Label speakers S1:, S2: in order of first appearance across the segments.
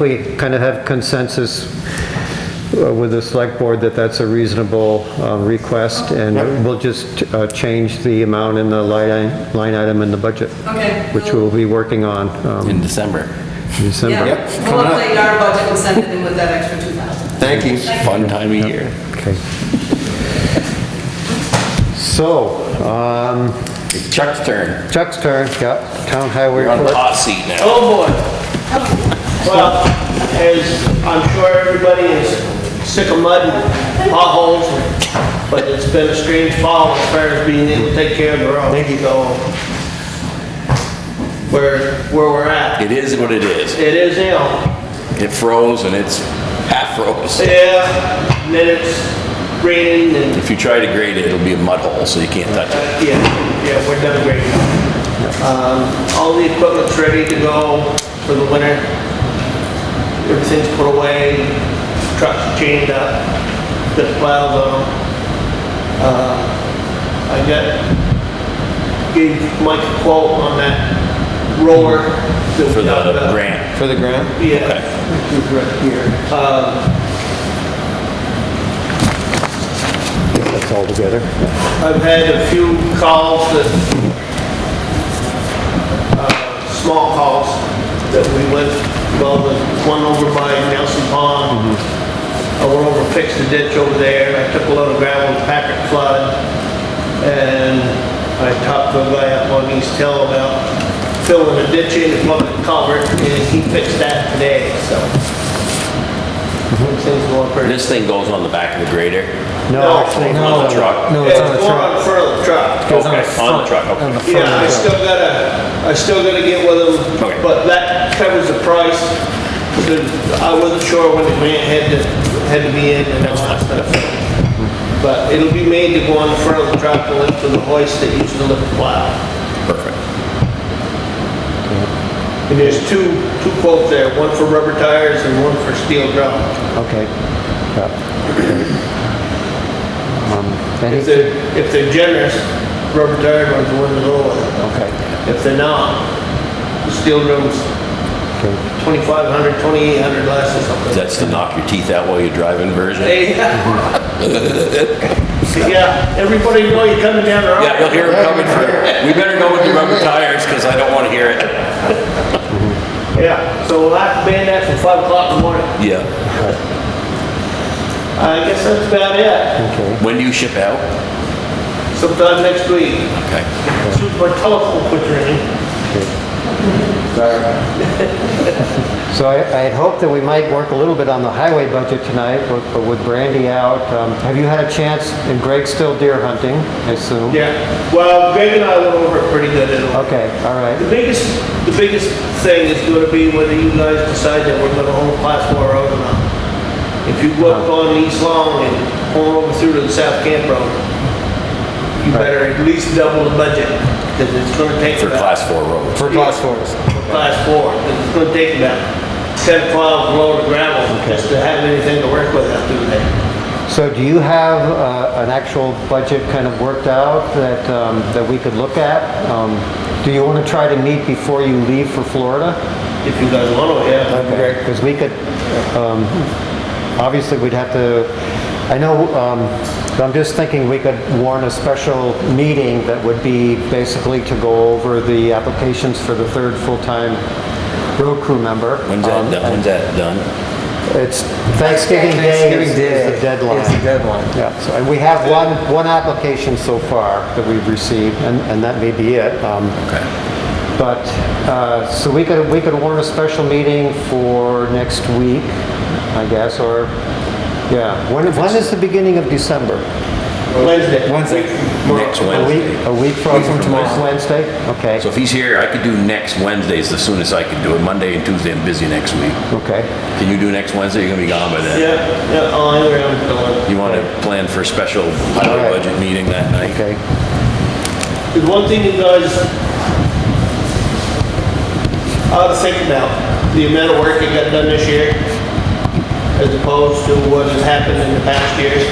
S1: We kind of have consensus uh, with the select board that that's a reasonable uh, request, and we'll just uh, change the amount in the line i- line item in the budget.
S2: Okay.
S1: Which we'll be working on um,
S3: in December.
S1: in December.
S2: Yeah,
S4: Yep,
S2: we'll
S4: coming up.
S2: update our budget and send it in with that extra 2,000.
S4: Thank you.
S3: Fun time of year.
S1: Okay. So, um,
S3: Chuck's turn.
S1: Chuck's turn, yeah, town highway
S3: You're on the
S1: report.
S3: hot seat now.
S5: Oh, boy. Well, as I'm sure everybody is sick of mud and potholes, but it's been a strange fall as far as being able to take care of the road. Thank you. Where, where we're at.
S3: It is what it is.
S5: It is now.
S3: It froze and it's half froze.
S5: Yeah, and then it's raining and
S3: If you try to grade it, it'll be a mud hole, so you can't touch it.
S5: Yeah, yeah, we're done grading. Um, all the equipment's ready to go for the winter. Everything's put away, trucks chained up, the plows on. Uh, I got, gave Mike a quote on that roller. that we
S3: For
S5: talked
S3: the
S5: about.
S3: grant,
S4: For the grant?
S5: Yeah,
S3: Okay.
S5: it's right here. Um,
S1: That's all together.
S5: I've had a few calls that, uh, small calls that we went, well, the one over by Nelson Pond.
S3: Mm-hmm.
S5: I went over, fixed the ditch over there, I took a load of gravel, to Packard flood, and I talked to a guy up on East Hill about filling the ditch in, and plugging the culvert, and he fixed that today, so. Things going
S3: Mm-hmm.
S5: pretty.
S3: this thing goes on the back of the grader.
S1: No, actually,
S3: On the truck.
S4: No, it's on the
S5: It's going
S4: truck.
S5: on in front of the truck.
S4: It's on the
S3: Okay, on the
S4: front.
S3: truck, okay.
S4: On the front
S5: Yeah, I
S4: of the
S5: still
S4: truck.
S5: gotta, I still gotta get with them,
S3: Okay.
S5: but that covers the price. The- I wasn't sure when the grant had to, had to be in and all that stuff. But it'll be made to go on the front of the truck to lift to the hoist that used to lift the plow.
S3: Perfect.
S5: And there's two, two quotes there, one for rubber tires and one for steel drum.
S1: okay. Yeah. Um, any-
S5: If they're, if they're generous, rubber tire ones are one of the lower.
S1: Um, Okay,
S5: If they're not, the steel drum's
S1: okay.
S5: 2,500, 2,800 less or something.
S3: That's to knock your teeth out while you're driving version.
S5: Hey. Yeah, everybody know you're coming down the road.
S3: Yeah, you'll hear it coming through. We better go with the rubber tires, because I don't want to hear it.
S5: Yeah, so we'll have to ban that from five o'clock in the morning.
S3: Yeah.
S5: I guess that's about it.
S3: When do you ship out?
S5: Sometime next week.
S3: Okay.
S5: Shoot my telephone picture in.
S1: So I I had hoped that we might work a little bit on the highway budget tonight, but but with Brandy out, um, have you had a chance, and Greg's still deer hunting, I assume?
S5: Yeah, well, Greg and I went over it pretty good. and all.
S1: Okay, all
S5: The
S1: right,
S5: biggest, the biggest thing is gonna be whether you guys decide that we're gonna hold class four road or not. If you go up on East Long and pull over through to the South Camp Road, you better at least double the budget, because it's gonna take
S3: For
S5: about.
S3: class four roads.
S4: For class fours.
S5: class four, 'cause it's gonna take about ten, twelve load of gravel just to have anything to work with after that.
S1: so do you have uh, an actual budget kind of worked out that um, that we could look at? Um, Do you want to try to meet before you leave for Florida?
S5: If you guys want to, yeah. that'd be great.
S1: Because we could, um, obviously, we'd have to, I know, um, I'm just thinking we could warn a special meeting that would be basically to go over the applications for the third full-time road crew member. Um,
S3: When's that done? Um, When's that done?
S1: It's Thanksgiving Day
S4: Thanksgiving
S1: is-
S4: Day
S1: is the deadline.
S4: is the deadline.
S1: Yeah, so, and we have one, one application so far that we've received, and, and that may be it. Um,
S3: Okay.
S1: but, uh, so we could, we could warn a special meeting for next week, I guess, or, yeah. When, when is the beginning of December?
S5: Wednesday.
S4: Wednesday.
S3: Next
S1: A week,
S3: Wednesday.
S1: a week from
S4: Week from tomorrow.
S1: this Wednesday? Okay,
S3: So if he's here, I could do next Wednesdays the soonest I could do it. Monday and Tuesday, I'm busy next week.
S1: okay.
S3: Can you do next Wednesday? You're gonna be gone by then.
S5: Yeah, yeah, oh, I'm around till then.
S3: You want to plan for a special highway
S1: Alright.
S3: budget meeting that night?
S1: Okay,
S5: There's one thing you guys ought to think about, the amount of work that got done this year as opposed to what has happened in the past years.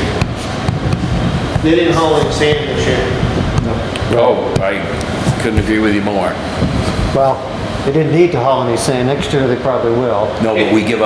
S5: They didn't haul any sand this year.
S3: Oh, I couldn't agree with you more.
S1: well, They didn't need to haul any sand. Next year, they probably will.
S3: No, but we give